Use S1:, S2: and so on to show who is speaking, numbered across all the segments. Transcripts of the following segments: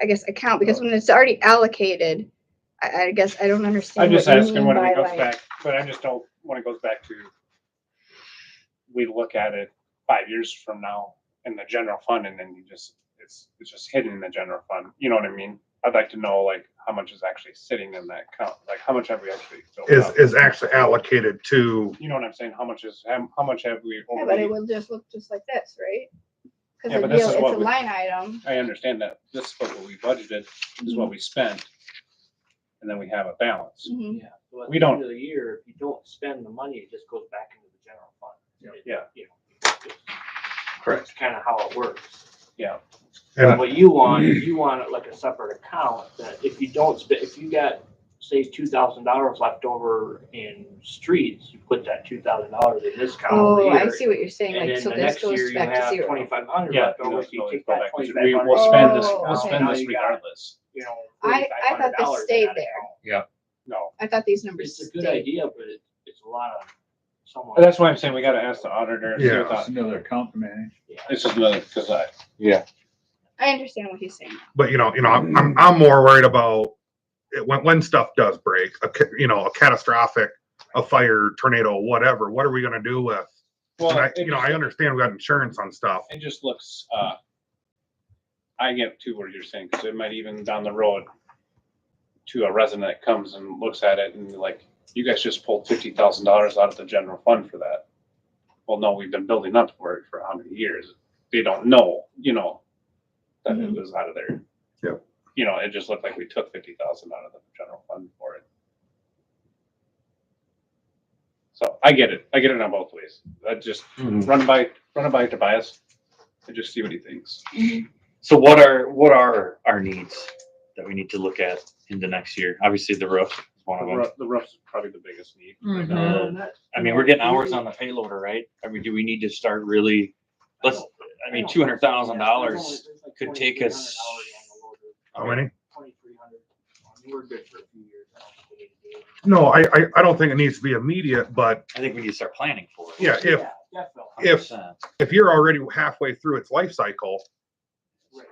S1: I guess, account, because when it's already allocated, I, I guess I don't understand.
S2: I'm just
S1: what you
S2: asking
S1: mean
S2: when it
S1: by,
S2: goes
S1: like-
S2: back, but I just don't, when it goes back to, we look at it five years from now in the general fund and then you just, it's, it's just hidden in the general fund. You know what I mean? I'd like to know like how much is actually sitting in that account, like how much have we actually filled
S3: is,
S2: up?
S3: is actually allocated to,
S2: You know what I'm saying? How much is, how how much have we?
S1: Yeah, but it
S2: already-
S1: would just look just like this, right?
S2: Yeah,
S1: Because
S2: but
S1: it's
S2: this is
S1: a
S2: what we-
S1: line item.
S2: I understand that. This is what we budgeted, this is what we spent. And then we have a balance.
S1: Mhm.
S4: Yeah, so at
S2: We
S4: the end
S2: don't-
S4: of the year, if you don't spend the money, it just goes back into the general fund. It-
S1: Mm-hmm.
S2: Yeah.
S4: you know, it's- That's kind of how it works.
S2: Yeah.
S3: Yeah.
S4: What you want, is you want it like a separate account that if you don't spend, if you got, say, two thousand dollars left over in streets, you put that two thousand dollars in this account over
S1: Oh,
S4: here.
S1: I see what you're saying,
S4: And
S1: like,
S4: then
S1: so
S4: the
S1: this
S4: next year
S1: goes
S4: you
S1: back to
S4: have
S1: zero.
S4: twenty-five hundred
S2: Yeah.
S4: left
S2: you know,
S4: over,
S2: it's
S4: so you
S2: always
S4: take
S2: go
S4: that
S2: back to-
S4: twenty-five
S2: We
S4: hundred.
S2: will spend this,
S1: Oh,
S2: we'll spend
S4: Now
S2: this
S4: you got,
S2: regardless.
S4: You know.
S1: I- I thought this
S4: $4,500 in
S1: stayed
S4: that
S1: there.
S4: account.
S2: No.
S1: I thought these numbers
S4: It's a good
S1: stayed.
S4: idea, but it- it's a lot of someone.
S2: That's why I'm saying we gotta ask the auditor. and see what
S3: Yeah.
S2: the-
S5: another account to manage.
S4: Yeah.
S2: This is another, cause I,
S5: Yeah.
S1: I understand what he's saying.
S3: but you know, you know, I'm, I'm, I'm more worried about it when, when stuff does break, a, ca- you know, a catastrophic, a fire, tornado, whatever, what are we gonna do with?
S2: well,
S3: And I,
S2: it
S3: you know,
S2: just-
S3: I understand we got insurance on stuff.
S2: It just looks, uh, I get to what you're saying, cause it might even down the road to a resident that comes and looks at it and like, you guys just pulled fifty thousand dollars out of the general fund for that. Well, no, we've been building up for it for how many years? They don't know, you know, that it was out of there.
S3: Yep.
S2: You know, it just looked like we took fifty thousand out of the general fund for it. So I get it. I get it on both ways. I just
S6: Mm-hmm.
S2: run it by, run it by Tobias and just see what he thinks.
S6: So what are, what are our needs that we need to look at in the next year? Obviously, the roof is one
S2: The
S6: of them.
S2: roof, the roof's probably the biggest need. right now.
S6: Uh, I mean, we're getting hours on the payloader, right? I mean, do we need to start really, let's, I mean, two hundred thousand dollars. could take us-
S3: How many?
S4: Twenty-three hundred. We're good for a few years. I don't think we need to do it.
S3: No, I, I, I don't think it needs to be immediate, but
S6: I think we need to start planning for it.
S3: yeah, if,
S4: Definitely.
S3: if-
S6: 100%.
S3: if you're already halfway through its life cycle,
S4: Right.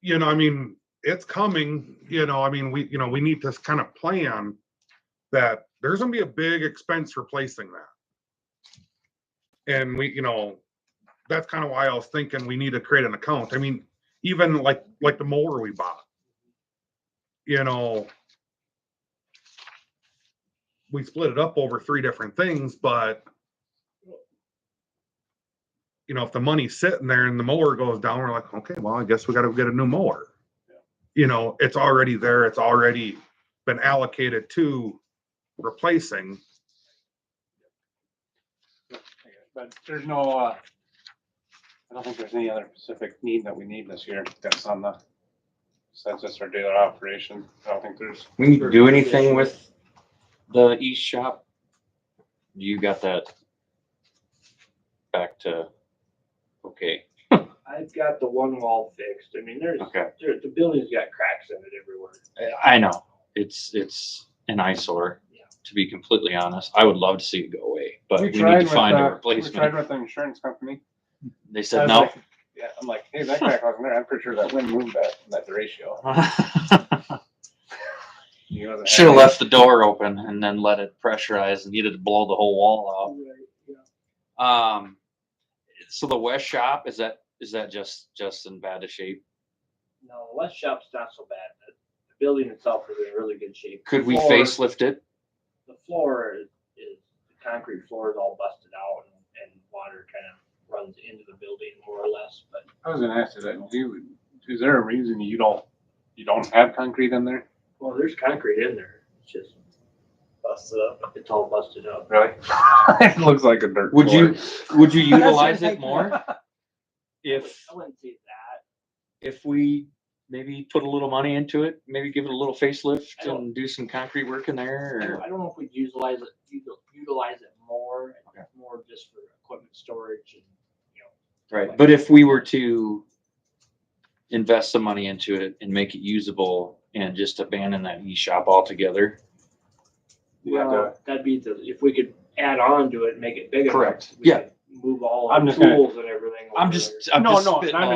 S3: you know, I mean, it's coming, you know, I mean, we, you know, we need to kind of plan that there's gonna be a big expense replacing that. And we, you know, that's kind of why I was thinking we need to create an account. I mean, even like, like the mower we bought. You know. We split it up over three different things, but. You know, if the money's sitting there and the mower goes down, we're like, okay, well, I guess we gotta get a new mower. You know, it's already there, it's already been allocated to replacing.
S2: But there's no, uh, I don't think there's any other specific need that we need this year that's on the, since it's our daily operation. I don't think there's,
S6: We need to do anything with the east shop? You got that back to, okay,
S4: I've got the one wall fixed. I mean, there's,
S6: okay.
S4: there, the building's got cracks in it everywhere.
S6: I know, it's, it's an eyesore,
S4: Yeah.
S6: to be completely honest. I would love to see it go away, but
S2: we
S6: we need
S2: tried
S6: to
S2: with,
S6: find a
S2: uh, we tried
S6: replacement.
S2: with the insurance company.
S6: They
S2: I
S6: said
S2: was
S6: no.
S2: like, Yeah, I'm like, hey, that crack wasn't there. I'm pretty sure that wind moved that, that ratio. He wasn't
S6: Should have
S2: happy.
S6: left the door open and then let it pressurize and needed to blow the whole wall out. Um, so the west shop, is that, is that just, just in bad a shape?
S4: No, the west shop's not so bad. The the building itself is in really good shape.
S6: Could we
S4: Floor-
S6: facelift it?
S4: the floor is, is, the concrete floor is all busted out and, and water kind of runs into the building more or less, but
S2: I was gonna ask you that, do, you- is there a reason you don't, you don't have concrete in there?
S4: well, there's concrete in there. It's just busted up. It's all busted up.
S2: Really? It looks like a dirt
S6: Would you,
S2: floor.
S6: would you utilize it more? If,
S4: I wouldn't say that.
S6: if we maybe put a little money into it, maybe give it a little facelift and do some concrete work in
S4: I
S6: there
S4: don't-
S6: or?
S4: I don't know if we'd utilize it, util- utilize it more, more just for equipment storage and, you know.
S6: Right, but if we were to invest some money into it and make it usable and just abandon that e-shop altogether.
S2: You have
S4: Well, that'd be the, if we could add on to it, and make it bigger.
S6: Correct.
S4: we
S6: Yeah.
S4: could Move all
S2: I'm
S4: our
S2: just gonna-
S4: tools and everything.
S6: I'm
S4: over
S6: just,
S4: there.
S6: I'm
S2: No,
S6: just
S2: no,
S6: spitting
S2: I'm